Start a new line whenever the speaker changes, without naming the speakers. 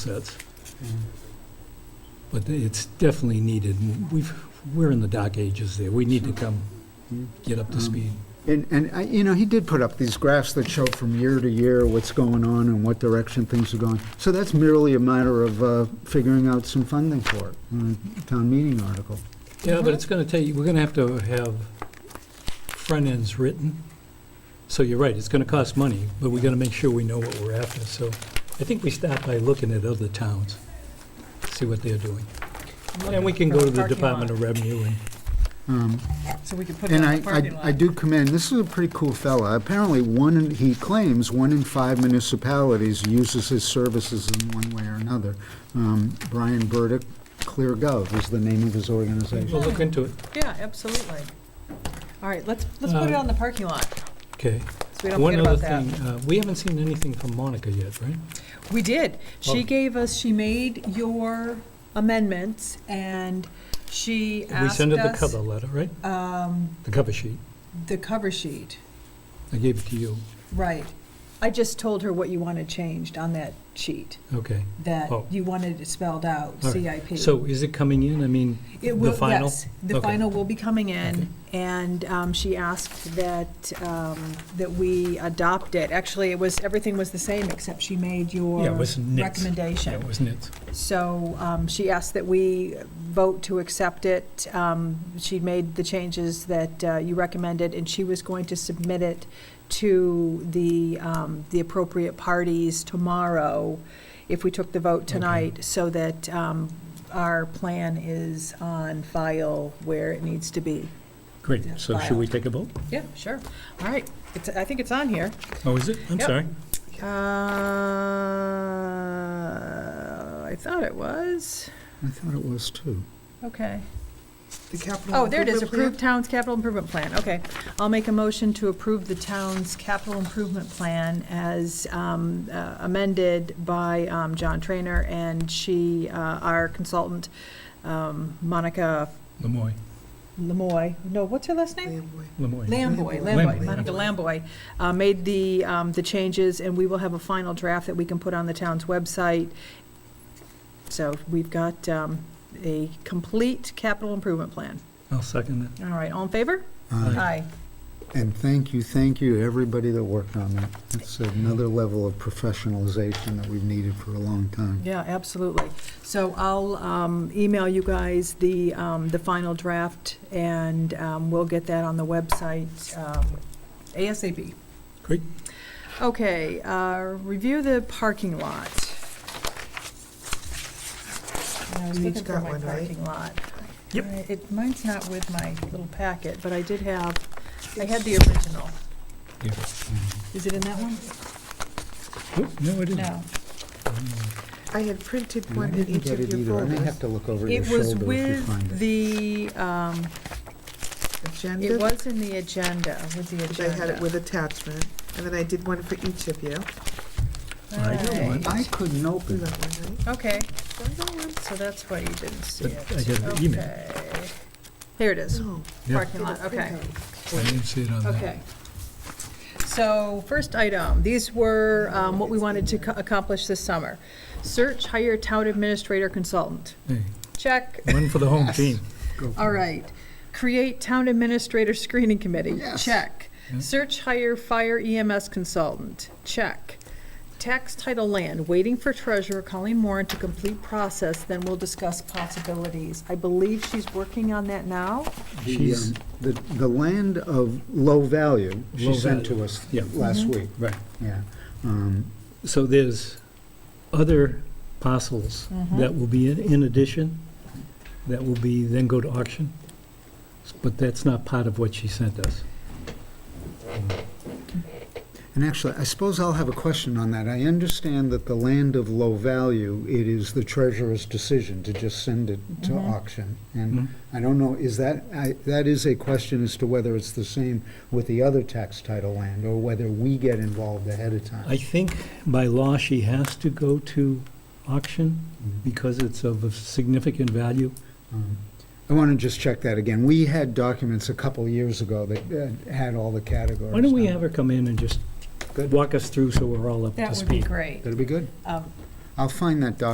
sets. But it's definitely needed. We've, we're in the dark ages there. We need to come, get up to speed.
And, and, I- you know, he did put up these graphs that show from year to year what's going on and what direction things are going. So that's merely a matter of uh, figuring out some funding for it, in a town meeting article.
Yeah, but it's gonna take, we're gonna have to have front ends written. So you're right, it's gonna cost money, but we gotta make sure we know what we're after. So I think we start by looking at other towns, see what they're doing. And we can go to the Department of Revenue and
Um,
So we could put
And
that
I,
in the
I-
parking lot.
I do commend, this is a pretty cool fella. Apparently, one, in- he claims, one in five municipalities uses his services in one way or another. Um, Brian Burdick, Clear Gov is the name of his organization.
we'll look into it.
Yeah, absolutely. All right, let's, let's put it
Um,
on the parking lot, so
Okay.
we don't
One
forget
other
about that.
thing, uh, we haven't seen anything from Monica yet, right?
We did.
Oh.
She gave us, she made your amendments, and she
We
asked
sent her the
us
cover letter, right?
um,
The cover sheet.
the cover sheet,
I gave it to you.
right. I just told her what you wanted changed on that sheet,
Okay.
that
Oh.
you wanted it spelled out,
All right.
CIP.
So is it coming in? I mean,
It
the
will,
final?
yes, the
Okay.
final will be coming in,
Okay.
and um, she asked that, um, that we adopt it. Actually, it was, everything was the same, except she made your
Yeah, it was nits. yeah,
recommendation.
it was nits.
So um, she asked that we vote to accept it. Um, She made the changes that uh, you recommended, and she was going to submit it to the, um, the appropriate parties tomorrow, if we took the vote tonight, so that um, our plan is on file where it needs to be.
Great.
Yeah,
So should
filed.
we take a vote?
Yeah, sure. All right, It's- I think it's on here.
Oh, is it? I'm
Yep.
sorry.
Uh, I thought it was.
I thought it was too.
Okay.
The capital.
Oh, there it is, approved town's capital improvement plan, okay. I'll make a motion to approve the town's capital improvement plan as um, uh, amended by um, John Trainer and she, uh, our consultant, um, Monica
Lemoy.
Lemoy, no, what's her last name?
Lemoy.
Lamboy,
Lamboy.
Lamboy, Monica Lamboy, uh, made the, um, the changes, and we will have a final draft that we can put on the town's website. So we've got um, a complete capital improvement plan.
I'll second
All right, all in favor?
Uh,
Aye.
And thank you, thank you, to everybody that worked on that. It's another level of professionalization that we've needed for a long time.
Yeah, absolutely. So I'll um, email you guys the, um, the final draft, and um, we'll get that on the website um, ASAP.
Great.
Okay, uh, review the parking lot. I was
We
looking
each
for
got
my
one, right?
parking lot.
Yep.
I- It, mine's not with my little packet, but I did have, I had the original.
that. Yeah.
Is it in that one?
Oop, No, it isn't.
No.
I had printed
And I
one in
didn't
each
get
of
it
your
either. I may have
folders.
to look over your
It was
shoulder if you find
with
it.
the, um, it
Agenda,
was in the agenda, with the
because I had it
agenda.
with attachment, and then I did one for each of you.
I did one.
I couldn't open
You
it.
got one, right?
Okay,
I got one.
so that's why you didn't see
But
it.
I got the email.
Okay. Here it is,
No.
Yeah.
parking lot, okay.
I didn't see it on that.
Okay. So, first item, these were um, what we wanted to co- accomplish this summer. Search, hire town administrator consultant.
Hey,
Check.
One for the home
Yes.
team.
Go for
All
it.
right. Create town administrator screening committee.
Yes.
Check.
Yeah.
Search, hire fire EMS consultant. Check. Tax title land, waiting for treasurer Colleen Moran to complete process, then we'll discuss possibilities. I believe she's working on that now.
The,
She's-
um, The, the land of low value,
Low
she sent
value,
to us
yeah.
last
Mm-hmm.
week,
Right.
yeah. Um,
So there's other parcels
Mhm.
that will be in- in addition, that will be, then go to auction, but that's not part of what she sent us.
And actually, I suppose I'll have a question on that. I understand that the land of low value, it is the treasurer's decision to just send it to
Mhm.
auction. And
Mhm.
I don't know, is that, I, that is a question as to whether it's the same with the other tax title land, or whether we get involved ahead of time.
I think by law, she has to go to auction because it's of a significant value.
Um, I want to just check that again. We had documents a couple years ago that uh, had all the categories. Um,
Why don't we
on it.
have her come in and just
Good.
walk us through so we're all up to speed?
great.
That'll be good.
Um,
I'll find that document